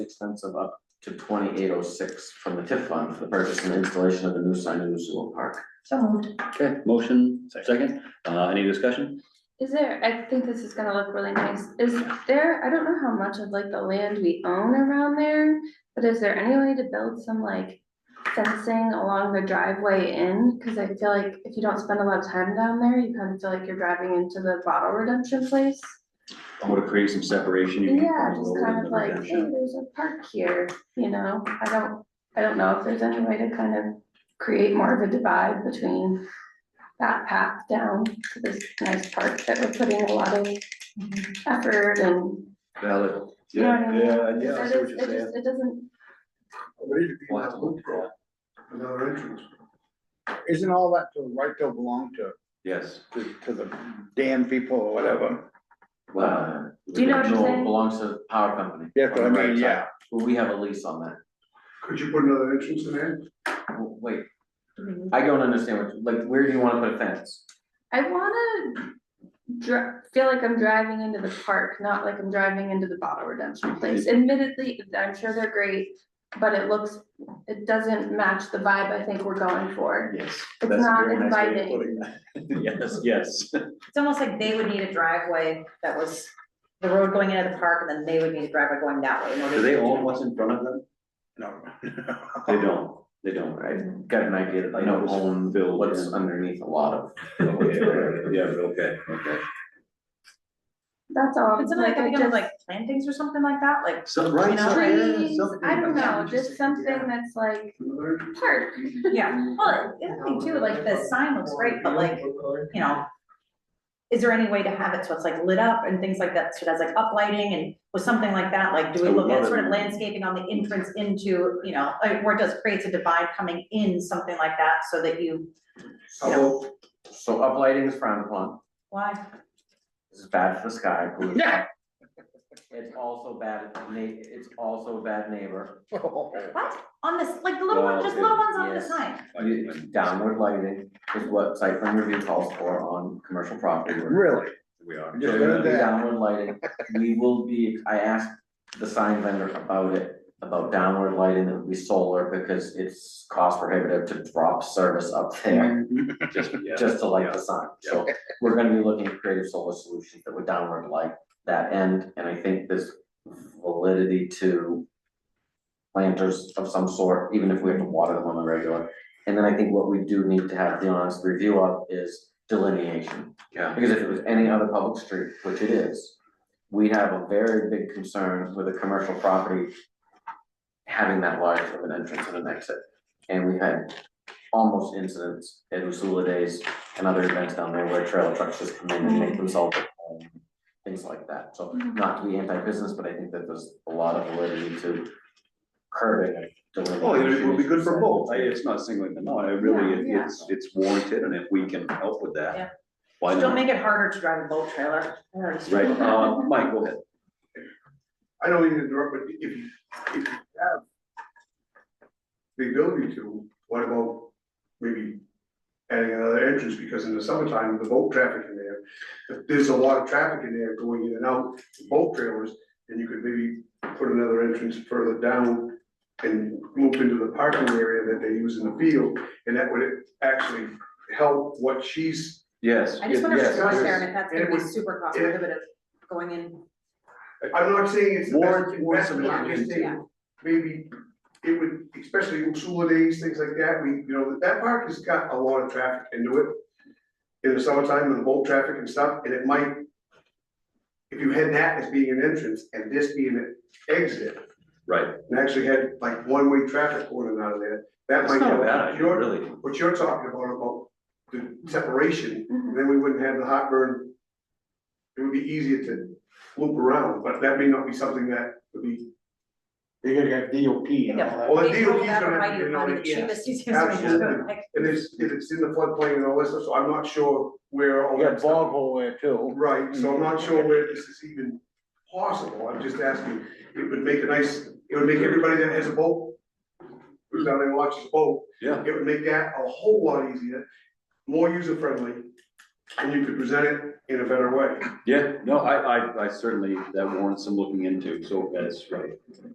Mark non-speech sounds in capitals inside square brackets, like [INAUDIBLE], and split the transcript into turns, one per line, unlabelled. expense of up to twenty eight oh six from the TIF fund for the purchase and installation of a new sign in the sewer park.
So moved.
Okay, motion, second, uh, any discussion?
Is there, I think this is gonna look really nice, is there, I don't know how much of like the land we own around there, but is there any way to build some like fencing along the driveway in? Cause I feel like if you don't spend a lot of time down there, you kind of feel like you're driving into the bottle redemption place.
I want to create some separation. you can
Yeah,
put a
just
little
kind
bit
of like, hey,
redemption.
there's a park here, you know, I don't, I don't know if there's any way to kind of create more of a divide between that path down to this nice park that we're putting a lot of effort and,
Valid.
you know what I mean?
Yeah, yeah, I
It
see what
does-
you're
it
saying.
just, it doesn't,
What is it?
We'll have to look for
Another entrance. Isn't all that to right to belong to,
Yes.
to, to the damn people or whatever?
Well,
Do you know what you're
no,
saying?
belongs to the power company.
Yeah, but I
on the right
mean,
side.
yeah.
Well, we have a lease on that.
Could you put another entrance in there?
Well, Wait, I don't understand what, like, where do you wanna put a fence?
I wanna dri- feel like I'm driving into the park, not like I'm driving into the bottle redemption place. Admittedly, I'm sure they're great, but it looks, it doesn't match the vibe I think we're going for.
Yes.
It's
That's a
not
very nice way of
inviting.
putting that. [LAUGHS] Yes, yes.
It's almost like they would need a driveway that was the road going into the park, and then they would need a driveway going that way in order
Do
to.
they own what's in front of them?
No.
They don't, they don't, right?
I got an idea that they don't own
Build,
what's
yeah.
underneath a lot of. [LAUGHS]
Okay, yeah, okay, okay.
That's all.
Could something like,
I
that be done
just-
with, like plantings or something like that, like,
Some, right,
know,
something, yeah,
Trees,
something.
I don't know,
I'm just
just
thinking,
something
yeah.
that's like
Another entrance?
park.
yeah, well, the other thing too, like the sign looks great, but like, you know. Is there any way to have it so it's like lit up and things like that, so it has like uplighting and with something like that, like, do we
I would
look
love
at
it.
sort of landscaping on the entrance into, you know, like, where it does creates a divide coming in, something like that, so that you, you know,
So, so uplighting is frowned upon,
why?
this is bad for the [LAUGHS] sky, pollution.
[LAUGHS] [LAUGHS] Yeah.
It's also bad, na- it's also a bad neighbor,
What? On this, like the little
Well,
one, just little ones on the
yes.
sign?
downward lighting is what site plan review calls for on commercial property.
Really?
We are.
Just
So
learned
there'll be
that.
downward lighting, we will be, I asked the sign vendor about it, about downward lighting, it would be solar, because it's cost prohibitive to drop service up there.
Just, yeah.
Just to light the sign, so we're gonna be looking at creative solar solutions that would downward light that end, and I think there's validity to. Planters of some sort, even if we have to water them on the regular, and then I think what we do need to have the honest review of is delineation.
Yeah.
Because if it was any other public street, which it is, we have a very big concern with a commercial property having that large of an entrance and an exit. And we had almost incidents at Usula Days and other events down there where trailer trucks just come in and make themselves at home, things like that. So not to be anti-business, but I think that there's a lot of validity to curbing and delimitation.
Well, Oh, it would be good for
as you
both, I,
said.
it's not singling them out, I really, it-
Yeah, yeah.
it's, it's warranted, and if we can help with
Yeah.
that. Why
Oh, Don't
not?
make it harder to drive a boat trailer. I already
Right,
struggled.
uh, Mike, go ahead.
I don't even interrupt, but if, you- if you have the ability to, what about maybe adding another entrance, because in the summertime, the boat traffic in there, if there's a lot of traffic in there going in and out, boat trailers, then you could maybe put another entrance further down and loop into the parking area that they use in the field, and that would actually help what she's
Yes.
I just wonder if
yes,
it's going
yes.
there and if that's gonna
It
be
would-
super cost
it-
prohibitive going in.
I'm not saying it's the best
Warrant- warrant some
investment, I'm just
investment, yeah.
saying, maybe it would, especially Ursula days, things like that, we, you know, that park has got a lot of traffic into it. In the summertime, and the boat traffic and stuff, and it might. If you had that as being an entrance and this being an exit,
Right,
and actually had like one-way traffic going in and out of there, that
that's
might.
not a
help.
bad idea,
You're-
really.
What you're talking about, about the separation,
Mhm.
then we wouldn't have the heartburn. It would be easier to loop around, but that may not be something that would be,
You gotta have DOP and all that.
well, the
They will
DOT's
never
gonna have
find
to,
you
you know,
find the
yeah.
cheapest, easiest way to do it.
absolutely.
Like,
And it's, if it's in the floodplain and all this stuff, so I'm not sure where all
You got
that
a
stuff.
bog hole there too.
Right, so I'm not sure where this is even possible, I'm just asking, it would make a nice, it would make everybody that has a boat. Who's down there and watches a boat.
Yeah.
It would make that a whole lot easier, more user friendly, and you could present it in a better way.
Yeah, no, I, I, I certainly, that warrants some looking into, so that's right.